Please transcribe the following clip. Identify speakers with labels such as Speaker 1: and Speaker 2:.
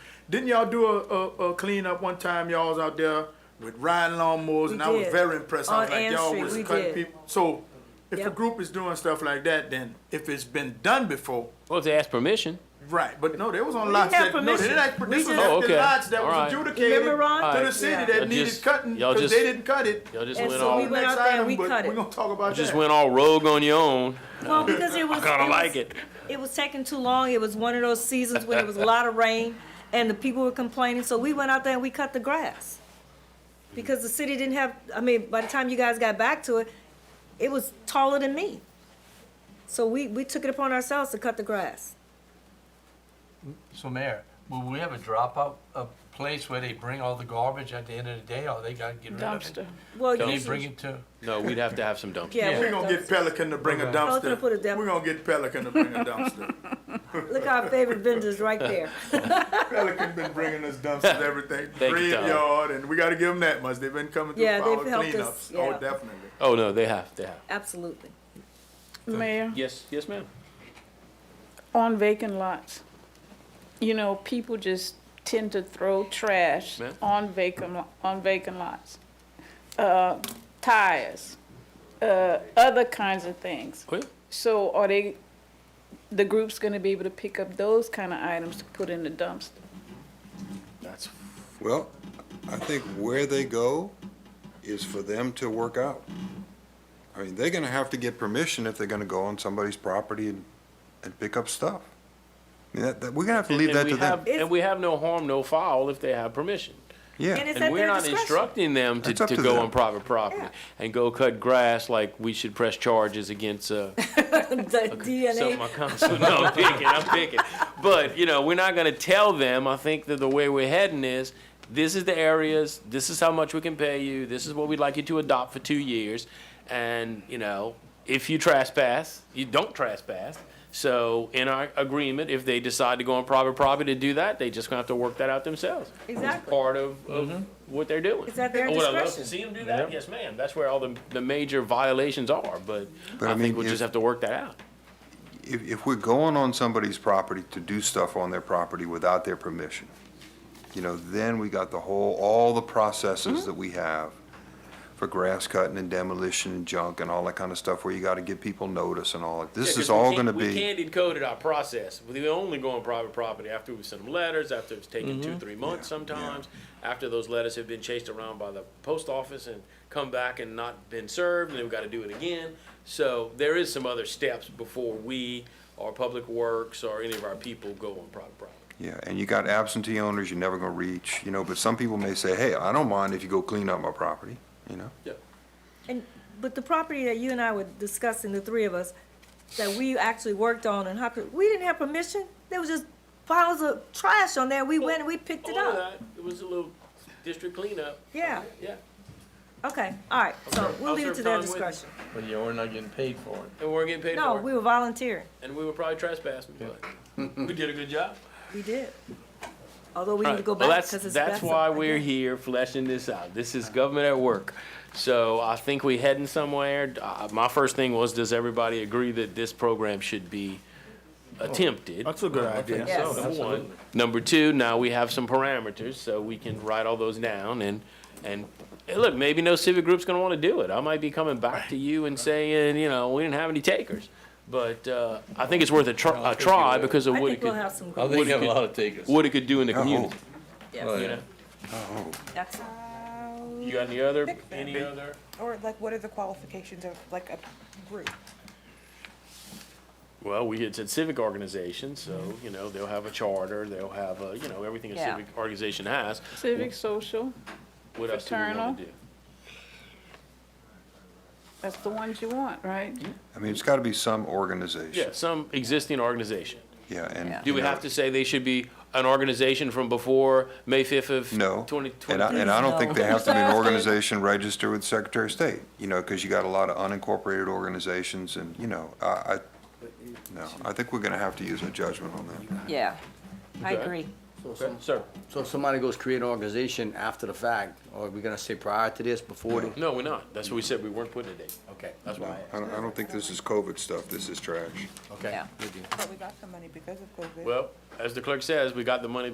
Speaker 1: Didn't y'all do a, a, a cleanup one time? Y'all was out there with riding lawnmowers, and I was
Speaker 2: did.
Speaker 1: very impressed. I was
Speaker 2: On
Speaker 1: like,
Speaker 2: Ann
Speaker 1: y'all
Speaker 2: Street,
Speaker 1: was
Speaker 2: we
Speaker 1: cutting
Speaker 2: did.
Speaker 1: people. So, if a
Speaker 2: Yep.
Speaker 1: group is doing stuff like that, then if it's been done before,
Speaker 3: Well, if they ask permission,
Speaker 1: right? But no, they was on lots
Speaker 2: have
Speaker 1: that no, they
Speaker 2: permission.
Speaker 1: didn't ask,
Speaker 2: We
Speaker 1: this was
Speaker 2: just-
Speaker 3: Oh,
Speaker 1: after
Speaker 3: okay.
Speaker 1: lots that was
Speaker 3: Alright.
Speaker 1: adjudicated
Speaker 2: Remember, Ron?
Speaker 1: to the
Speaker 3: Alright.
Speaker 1: city
Speaker 2: Yeah.
Speaker 1: that
Speaker 3: Y'all
Speaker 1: needed
Speaker 3: just-
Speaker 1: cutting
Speaker 3: y'all
Speaker 1: because
Speaker 3: just-
Speaker 1: they didn't cut it.
Speaker 3: y'all just
Speaker 2: And
Speaker 3: went
Speaker 2: so
Speaker 3: all
Speaker 2: we went
Speaker 1: Next
Speaker 2: out there and
Speaker 1: item,
Speaker 2: we
Speaker 1: but
Speaker 2: cut it.
Speaker 1: We're gonna talk about
Speaker 3: just
Speaker 1: that.
Speaker 3: went all rogue on your own.
Speaker 2: Well, because it was.
Speaker 3: kinda
Speaker 2: it was-
Speaker 3: like it.
Speaker 2: It was taking too long. It was one of those seasons when it was a lot of rain and the people were complaining, so we went out there and we cut the grass. Because the city didn't have, I mean, by the time you guys got back to it, it was taller than me. So we, we took it upon ourselves to cut the grass.
Speaker 4: So Mayor, will we have a dropout, a place where they bring all the garbage at the end of the day, or they gotta get rid of it?
Speaker 2: Well,
Speaker 4: Can they bring
Speaker 2: usually,
Speaker 4: it to?
Speaker 3: No, we'd have to have some dumpsters.
Speaker 2: yeah.
Speaker 1: We're gonna get Pelican to bring a dumpster.
Speaker 2: Pelican put a dump-
Speaker 1: We're gonna get Pelican to bring a dumpster.
Speaker 2: Look, our favorite vendors right there.
Speaker 1: Pelican been bringing us dumpsters, everything,
Speaker 3: Thank you, Tom.
Speaker 1: graveyard, and we gotta give them that much. They've been coming through
Speaker 2: Yeah,
Speaker 1: for
Speaker 2: they've
Speaker 1: our
Speaker 2: helped us,
Speaker 1: cleanups. Oh,
Speaker 2: yeah.
Speaker 1: definitely.
Speaker 3: Oh no, they have. They have.
Speaker 2: Absolutely.
Speaker 5: Mayor,
Speaker 3: Yes, yes, ma'am.
Speaker 5: on vacant lots, you know, people just tend to throw trash
Speaker 3: Ma'am?
Speaker 5: on vacant, lo- on vacant lots. Uh, tires, uh, other kinds of things.
Speaker 3: Well,
Speaker 5: So are they, the group's gonna be able to pick up those kind of items to put in the dumpster?
Speaker 3: that's
Speaker 6: Well, I think where they go is for them to work out. I mean, they're gonna have to get permission if they're gonna go on somebody's property and, and pick up stuff. I mean, that, that, we're gonna have to leave
Speaker 3: and
Speaker 6: that
Speaker 3: we
Speaker 6: to them.
Speaker 3: have- and we have no harm, no foul if they have permission.
Speaker 2: And
Speaker 6: Yeah,
Speaker 2: it's
Speaker 3: and
Speaker 2: at
Speaker 3: we're
Speaker 2: their
Speaker 3: not
Speaker 2: discretion.
Speaker 3: instructing them to,
Speaker 6: That's up
Speaker 3: to
Speaker 6: to
Speaker 3: go
Speaker 6: them.
Speaker 3: on private property
Speaker 2: Yeah.
Speaker 3: and go cut grass like we should press charges against uh,
Speaker 2: The
Speaker 3: some of
Speaker 2: DNA,
Speaker 3: my council. No, I'm picking, I'm picking. But, you know, we're not going to tell them. I think that the way we're heading is this is the areas, this is how much we can pay you, this is what we'd like you to adopt for two years. And, you know, if you trespass, you don't trespass. So in our agreement, if they decide to go on private property to do that, they just gonna have to work that out themselves. It's
Speaker 2: exactly.
Speaker 3: part of, of what they're doing.
Speaker 2: It's at their
Speaker 3: Would I love to
Speaker 2: discretion.
Speaker 3: see them do that? Yes, ma'am. That's where all the, the major violations are, but
Speaker 6: But I
Speaker 3: I
Speaker 6: mean,
Speaker 3: think we'll
Speaker 6: if-
Speaker 3: just have to work that out.
Speaker 6: if, if we're going on somebody's property to do stuff on their property without their permission, you know, then we got the whole, all the
Speaker 2: Mm-hmm.
Speaker 6: processes that we have for grass cutting and demolition and junk and all that kind of stuff where you gotta give people notice and all that. This
Speaker 3: Yeah,
Speaker 6: is
Speaker 3: 'cause we
Speaker 6: all
Speaker 3: can-
Speaker 6: gonna
Speaker 3: We
Speaker 6: be,
Speaker 3: candied coded our process. We only go on private property after we send them letters, after it's taken two, three months sometimes, after those letters have been chased around by the post office and come back and not been served, and then we gotta do it again. So there is some other steps before we or Public Works or any of our people go on private property.
Speaker 6: yeah, and you got absentee owners you're never gonna reach, you know, but some people may say, hey, I don't mind if you go clean up my property, you know?
Speaker 3: Yeah.
Speaker 2: And, but the property that you and I were discussing, the three of us, that we actually worked on and hopped, we didn't have permission. There was just piles of trash on there. We went and we picked it
Speaker 3: All of
Speaker 2: up.
Speaker 3: that, it was a little district cleanup.
Speaker 2: Yeah,
Speaker 3: Yeah,
Speaker 2: okay, all right. So
Speaker 3: Okay.
Speaker 2: we'll leave it to their
Speaker 3: Officer, fine with-
Speaker 2: discretion.
Speaker 4: But yeah, we're not getting paid for it.
Speaker 3: and we weren't getting paid
Speaker 2: No,
Speaker 3: for
Speaker 2: we
Speaker 3: it,
Speaker 2: were volunteering.
Speaker 3: and we were probably trespassing, but we did a good job.
Speaker 2: We did. Although we need to
Speaker 3: Right.
Speaker 2: go
Speaker 3: Well,
Speaker 2: back
Speaker 3: that's-
Speaker 2: because it's.
Speaker 3: That's
Speaker 2: messed up
Speaker 3: why
Speaker 2: again.
Speaker 3: we're here fleshing this out. This is government at work. So I think we heading somewhere. Uh, My first thing was, does everybody agree that this program should be attempted?
Speaker 1: That's a good idea.
Speaker 2: Yes.
Speaker 3: Number one. Number two, now we have some parameters, so we can write all those down and, and, hey, look, maybe no civic group's gonna wanna do it. I might be coming back to you and saying, you know, we didn't have any takers. But, uh, I think it's worth a try, a try because of
Speaker 2: I
Speaker 3: what it
Speaker 2: think we'll
Speaker 3: could,
Speaker 2: have some,
Speaker 4: I
Speaker 2: good-
Speaker 4: think you have a lot of takers.
Speaker 3: what it could do in the
Speaker 6: Oh.
Speaker 3: community,
Speaker 4: Oh,
Speaker 2: yes,
Speaker 4: yeah.
Speaker 3: you know?
Speaker 2: excellent.
Speaker 3: You got any other, any other?
Speaker 7: Or like, what are the qualifications of like a group?
Speaker 3: Well, we, it's a civic organization, so, you know, they'll have a charter, they'll have a, you know, everything a
Speaker 2: Yeah.
Speaker 3: civic organization has.
Speaker 5: Civic, social,
Speaker 3: What else do we wanna
Speaker 5: Fraternal.
Speaker 3: do?
Speaker 5: that's the ones you want, right?
Speaker 6: I mean, it's gotta be some organization.
Speaker 3: Yeah, some existing organization.
Speaker 6: Yeah, and.
Speaker 3: Do we
Speaker 6: you know,
Speaker 3: have to say they should be an organization from before May fifth of
Speaker 6: No.
Speaker 3: twenty
Speaker 6: And I,
Speaker 3: twenty?
Speaker 6: and I don't think they have to be an
Speaker 2: No.
Speaker 6: organization registered with Secretary of State, you know, because you got a lot of unincorporated organizations and, you know, I, I, no, I think we're gonna have to use a judgment on that.
Speaker 2: Yeah, I
Speaker 3: Okay.
Speaker 2: agree.
Speaker 8: So some-
Speaker 3: Sir,
Speaker 8: so if somebody goes create an organization after the fact, or are we gonna say prior to this, before the?
Speaker 3: no, we're not. That's what we said, we weren't putting a date.
Speaker 8: Okay,
Speaker 3: That's why I asked.
Speaker 6: I don't, I don't think this is COVID stuff, this is trash.
Speaker 8: okay.
Speaker 2: Yeah.
Speaker 8: Good deal.
Speaker 7: But we got some money because of COVID.
Speaker 3: Well, as the clerk says, we got the money